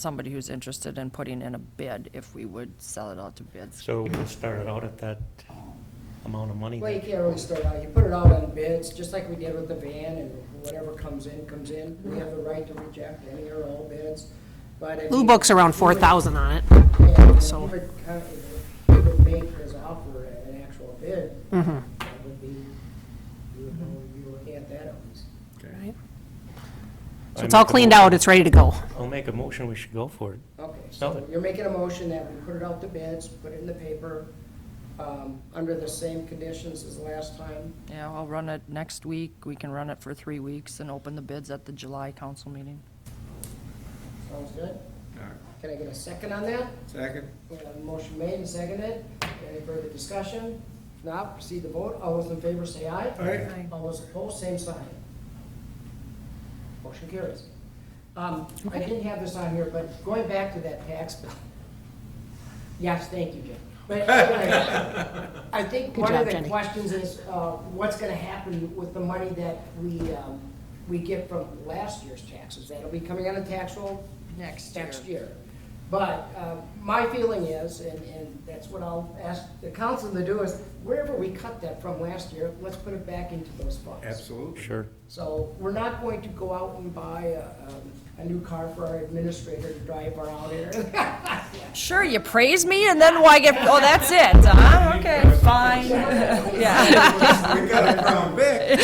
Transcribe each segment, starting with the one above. somebody who's interested in putting in a bid if we would sell it out to bids. So we'll start it out at that um, amount of money. Well, you then. can't really start out, you put it out on bids, just like we did with the van, and whatever comes in, comes in. We have the right to reject any or all bids, but. I Blue mean, Book's around we would- four thousand on it. Yeah, if so- you would co- if you would make his offer an actual bid, Mhm. that would be, you would know, you'd be looking at that at least. Right. I So it's all make a cleaned motion- out, it's ready to go. I'll make a motion, we should go for it. Okay, so Nothing. you're making a motion that we put it out to bids, put it in the paper, um, under the same conditions as last time. Yeah, I'll run it next week. We can run it for three weeks and open the bids at the July council meeting. Sounds good? All right. Can I get a second on that? Second? We have a Uh, Motion made and seconded. Any further discussion? If not, proceed to vote. All those in favor say aye. Aye. All those opposed, same sign. Motion carries. Um, I didn't have this on here, but going back to that tax bill. Yes, thank you, Jim. But anyway, I think Good one job, of the Jenny. questions is, uh, what's gonna happen with the money that we, um, we get from last year's taxes? That'll be coming out of tax roll Next next year. But uh, my feeling is, and, and that's what I'll ask the council to do, is wherever we cut that from last year, let's put it back into those funds. Absolutely. Sure. So we're not going to go out and buy a, um, a new car for our administrator to drive around here. Sure, you praise me and then why get, oh, that's it, huh? Okay, fine. Yeah. We got a crown Vic.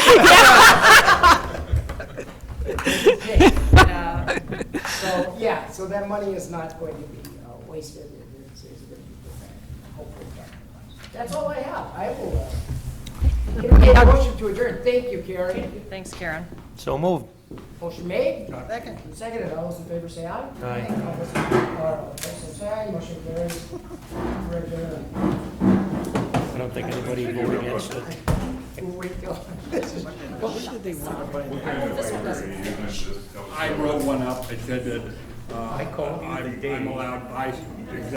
So, yeah, so that money is not going to be uh, wasted. It- It's, it's going to be put back, hopefully. back in the funds. That's all I have. I will, uh, entertain a motion to adjourn. Thank you, Carrie. Thanks, Karen. So moved. Motion made. Second. Seconded, all those in favor say aye. Aye. All those opposed, same sign, motion carries. We're adjourned. I don't think anybody voted against it. We'll wait till- I wrote one up, it said that, uh, I'm I'm allowed by